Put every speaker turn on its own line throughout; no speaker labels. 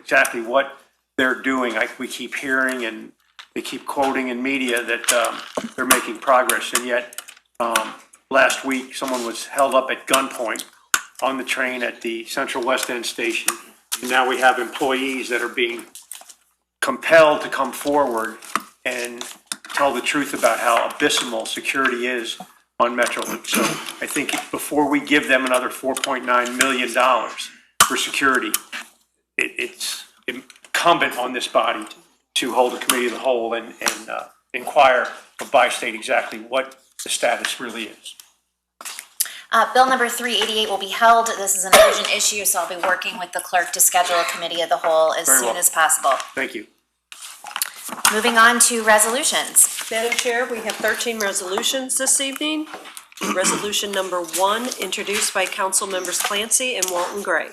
exactly what they're doing. I, we keep hearing and they keep quoting in media that, um, they're making progress, and yet, um, last week, someone was held up at gunpoint on the train at the Central West End Station. And now we have employees that are being compelled to come forward and tell the truth about how abysmal security is on Metrolink. So I think before we give them another $4.9 million for security, it, it's incumbent on this body to hold a committee of the whole and, and uh, inquire of by state exactly what the status really is.
Uh, bill number three eighty-eight will be held. This is an urgent issue, so I'll be working with the clerk to schedule a committee of the whole as
Very
soon
well.
as possible.
Thank you.
Moving on to resolutions.
Madam Chair, we have 13 resolutions this evening. Resolution number one, introduced by Council Members Clancy and Walton Gray.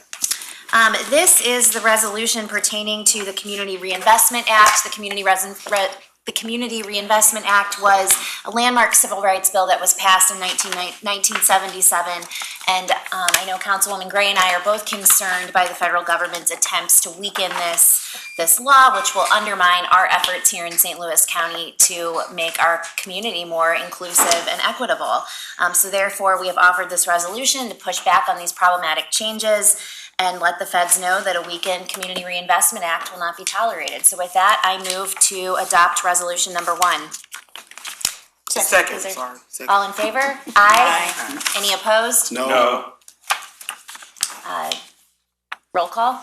Um, this is the resolution pertaining to the Community Reinvestment Act. The Community Resin, Re- the Community Reinvestment Act was a landmark civil rights bill that was passed in 19 1977. And, um, I know Councilwoman Gray and I are both concerned by the federal government's attempts to weaken this, this law, which will undermine our efforts here in St. Louis County to make our community more inclusive and equitable. Um, so therefore, we have offered this resolution to push back on these problematic changes and let the feds know that a weakened Community Reinvestment Act will not be tolerated. So with that, I move to adopt resolution number one.
Second,
Is there-
sorry. Second.
All in favor? Aye. Any opposed?
No.
Uh, Roll call?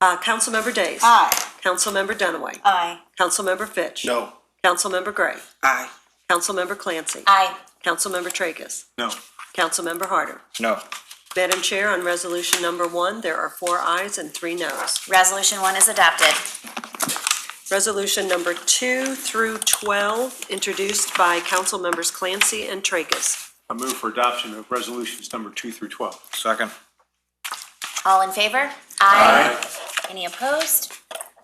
Uh, Councilmember Days.
Aye.
Councilmember Dunaway.
Aye.
Councilmember Fitch.
No.
Councilmember Gray.
Aye.
Councilmember Clancy.
Aye.
Councilmember Tracus.
No.
Councilmember Harder.
No.
Madam Chair, on resolution number one, there are four ayes and three noes.
Resolution one is adopted.
Resolution number two through 12, introduced by Council Members Clancy and Tracus.
I move for adoption of resolutions number two through 12.
Second.
All in favor? Aye. Any opposed?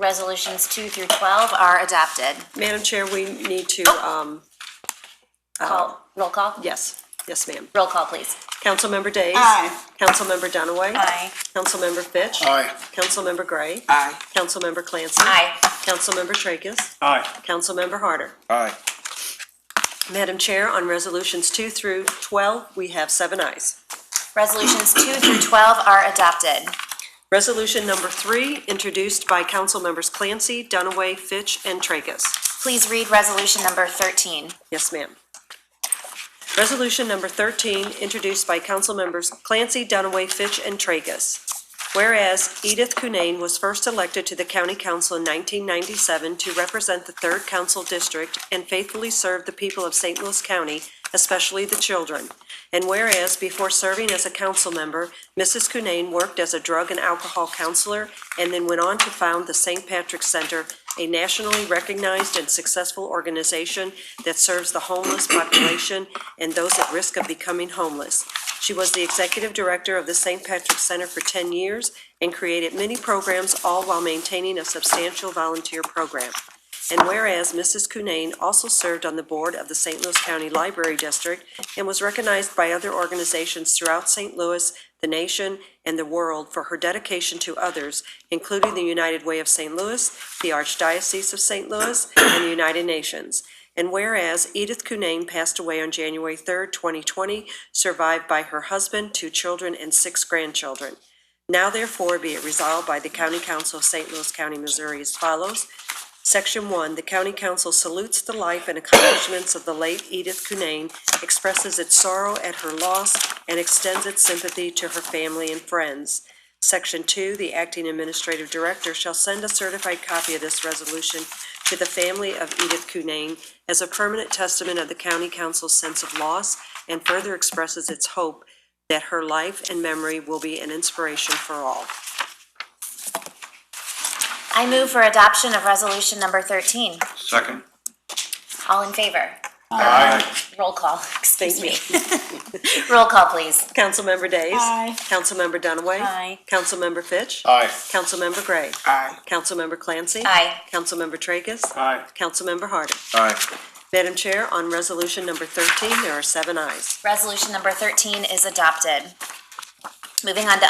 Resolutions two through 12 are adopted.
Madam Chair, we need to, um,
Call, roll call?
yes, yes, ma'am.
Roll call, please.
Councilmember Days.
Aye.
Councilmember Dunaway.
Aye.
Councilmember Fitch.
Aye.
Councilmember Gray.
Aye.
Councilmember Clancy.
Aye.
Councilmember Tracus.
Aye.
Councilmember Harder.
Aye.
Madam Chair, on resolutions two through 12, we have seven ayes.
Resolutions two through 12 are adopted.
Resolution number three, introduced by Council Members Clancy, Dunaway, Fitch, and Tracus.
Please read resolution number 13.
Yes, ma'am. Resolution number 13, introduced by Council Members Clancy, Dunaway, Fitch, and Tracus. Whereas Edith Cunane was first elected to the County Council in 1997 to represent the Third Council District and faithfully serve the people of St. Louis County, especially the children. And whereas before serving as a council member, Mrs. Cunane worked as a drug and alcohol counselor and then went on to found the St. Patrick Center, a nationally recognized and successful organization that serves the homeless population and those at risk of becoming homeless. She was the executive director of the St. Patrick Center for 10 years and created many programs, all while maintaining a substantial volunteer program. And whereas Mrs. Cunane also served on the board of the St. Louis County Library District and was recognized by other organizations throughout St. Louis, the nation, and the world for her dedication to others, including the United Way of St. Louis, the Archdiocese of St. Louis, and the United Nations. And whereas Edith Cunane passed away on January 3rd, 2020, survived by her husband, two children, and six grandchildren. Now therefore be it resolved by the County Council of St. Louis County, Missouri as follows. Section 1, the County Council salutes the life and accomplishments of the late Edith Cunane, expresses its sorrow at her loss, and extends its sympathy to her family and friends. Section 2, the Acting Administrative Director shall send a certified copy of this resolution to the family of Edith Cunane as a permanent testament of the County Council's sense of loss, and further expresses its hope that her life and memory will be an inspiration for all.
I move for adoption of resolution number 13.
Second.
All in favor?
Aye.
Roll call, excuse
Thank
me. Roll call, please.
Councilmember Days.
Aye.
Councilmember Dunaway.
Aye.
Councilmember Fitch.
Aye.
Councilmember Gray.
Aye.
Councilmember Clancy.
Aye.
Councilmember Tracus.
Aye.
Councilmember Harder.
Aye.
Madam Chair, on resolution number 13, there are seven ayes.
Resolution number 13 is adopted. Moving on to